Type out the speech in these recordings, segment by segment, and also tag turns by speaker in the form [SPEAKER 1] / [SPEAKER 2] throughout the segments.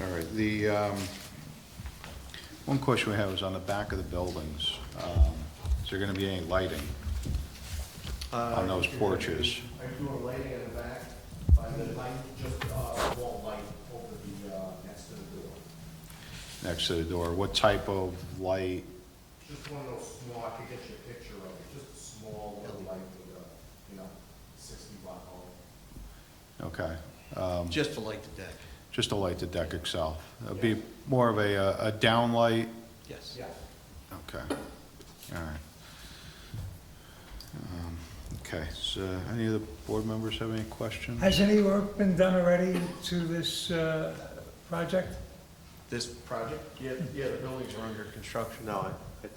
[SPEAKER 1] All right, the, um, one question we have is on the back of the buildings. Um, Is there going to be any lighting on those porches?
[SPEAKER 2] Are you doing lighting in the back? By the light, just, uh, wall light over the, uh, next to the door.
[SPEAKER 1] next to the door, what type of light,
[SPEAKER 2] Just one of those small, I could get you a picture of it, just a small little light with a, you know, sixty watt bulb.
[SPEAKER 1] okay,
[SPEAKER 3] Just to light the deck,
[SPEAKER 1] just to light the deck itself. It'd be more of a, uh, a downlight,
[SPEAKER 3] yes.
[SPEAKER 2] Yeah.
[SPEAKER 1] okay, all right. Um, Okay, so any of the board members have any questions?
[SPEAKER 4] Has any work been done already to this uh, project?
[SPEAKER 3] This project? Yeah, yeah, the buildings are under construction. No, I, I-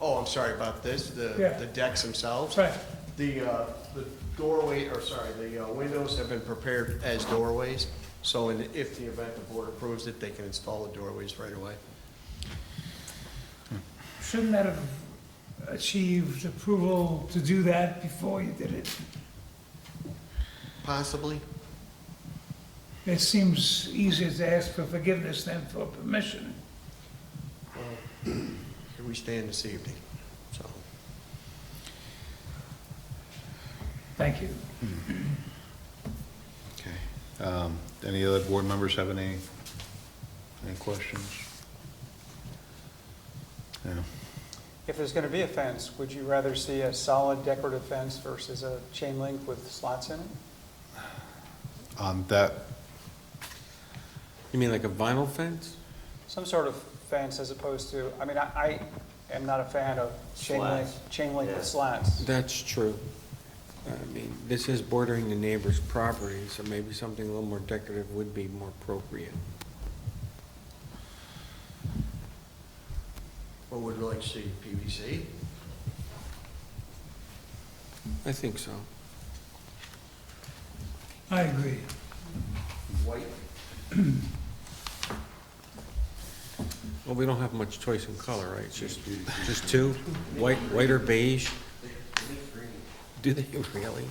[SPEAKER 3] oh, I'm sorry about this, the,
[SPEAKER 4] Yeah.
[SPEAKER 3] the decks themselves.
[SPEAKER 4] Right,
[SPEAKER 3] The, uh, the doorway, or sorry, the uh, windows have been prepared as doorways, so in, if the event the board approves it, they can install the doorways right away.
[SPEAKER 4] shouldn't that have achieved approval to do that before you did it?
[SPEAKER 3] Possibly?
[SPEAKER 4] It seems easier to ask for forgiveness than for permission.
[SPEAKER 3] Here we stand this evening, so.
[SPEAKER 4] Thank you.
[SPEAKER 1] Okay, um, any other board members have any, any questions? No,
[SPEAKER 5] If there's going to be a fence, would you rather see a solid decorative fence versus a chain link with slots in it?
[SPEAKER 1] um, that,
[SPEAKER 6] You mean like a vinyl fence?
[SPEAKER 5] Some sort of fence as opposed to, I mean, I, I am not a fan of chain link, chain link with slats.
[SPEAKER 6] That's true. I mean, this is bordering the neighbor's property, so maybe something a little more decorative would be more appropriate.
[SPEAKER 3] What would you like to see, PVC?
[SPEAKER 6] I think so.
[SPEAKER 4] I agree.
[SPEAKER 3] White?
[SPEAKER 6] Well, we don't have much choice in color, right? It's just, just two, white, white or beige? Do they really?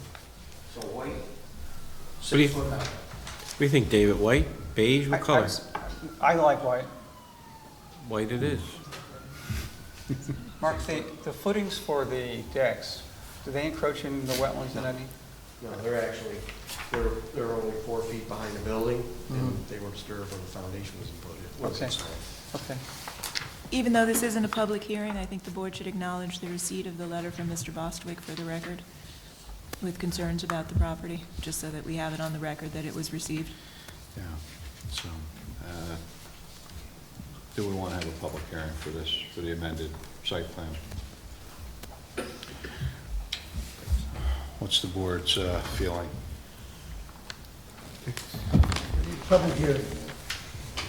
[SPEAKER 3] So white?
[SPEAKER 6] do you-
[SPEAKER 3] Six foot high.
[SPEAKER 6] What do you think, David? White, beige,
[SPEAKER 5] I-
[SPEAKER 6] what
[SPEAKER 5] I-
[SPEAKER 6] color?
[SPEAKER 5] I like white.
[SPEAKER 6] White it is.
[SPEAKER 5] Mark, the, the footings for the decks, do they encroach in the wetlands in any?
[SPEAKER 3] No, they're actually, they're, they're only four feet behind the building, and they were disturbed when the foundation was put in. was
[SPEAKER 5] Okay.
[SPEAKER 3] installed.
[SPEAKER 5] Okay.
[SPEAKER 7] Even though this isn't a public hearing, I think the board should acknowledge the receipt of the letter from Mr. Bostwick for the record with concerns about the property, just so that we have it on the record that it was received.
[SPEAKER 1] yeah, so, uh, do we want to have a public hearing for this, for the amended site plan? What's the board's uh, feeling?
[SPEAKER 4] Public hearing.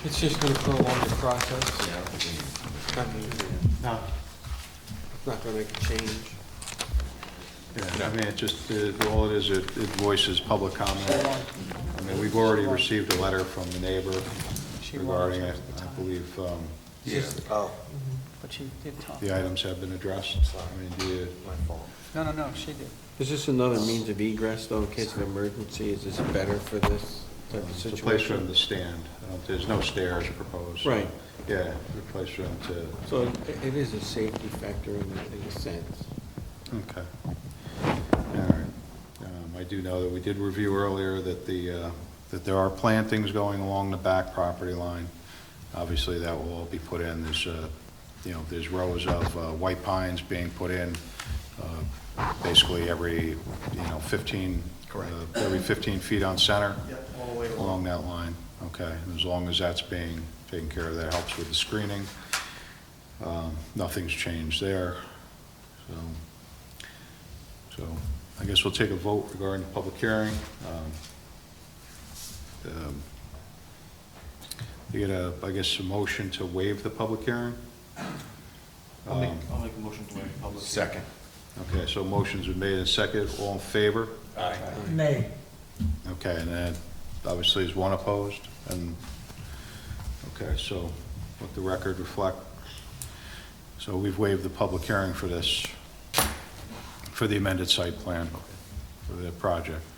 [SPEAKER 6] It's just gonna prolong the process. I mean,
[SPEAKER 3] Now,
[SPEAKER 6] it's not gonna make a change.
[SPEAKER 1] Yeah, I mean, it just, it- all it is, it it voices public comment. I mean, we've already received a letter from the neighbor
[SPEAKER 5] She won't
[SPEAKER 1] regarding it.
[SPEAKER 5] at the
[SPEAKER 1] I
[SPEAKER 5] time,
[SPEAKER 1] believe um,
[SPEAKER 3] oh,
[SPEAKER 5] But she did talk.
[SPEAKER 1] the items have been addressed. I mean, do you,
[SPEAKER 3] my fault.
[SPEAKER 5] No, no, no, she did.
[SPEAKER 6] Is this another means of egress though, in case of emergency? Is this better for this type of
[SPEAKER 1] it's a
[SPEAKER 6] situation?
[SPEAKER 1] place for them to stand. I don't- There's no stairs proposed.
[SPEAKER 6] Right.
[SPEAKER 1] Yeah, a place for them to,
[SPEAKER 6] So it- it is a safety factor in in a sense.
[SPEAKER 1] okay. All right. Um, I do know that we did review earlier that the, uh, that there are plantings going along the back property line. Obviously, that will all be put in. There's, uh, you know, there's rows of uh, white pines being put in uh, basically every, you know, 15,
[SPEAKER 3] Correct.
[SPEAKER 1] uh, every 15 feet on center.
[SPEAKER 3] Yep, all the way along.
[SPEAKER 1] along that line, okay? And As long as that's being taken care of, that helps with the screening. Um, Nothing's changed there, so, so I guess we'll take a vote regarding the public hearing. Um, um, You get a, I guess, a motion to waive the public hearing?
[SPEAKER 2] I'll make, I'll make a motion to waive public. Second.
[SPEAKER 1] Okay, so motions are made and seconded, all in favor?
[SPEAKER 4] Nay.
[SPEAKER 1] Okay, and then obviously is one opposed, and, okay, so let the record reflect. So we've waived the public hearing for this, for the amended site plan, for the project.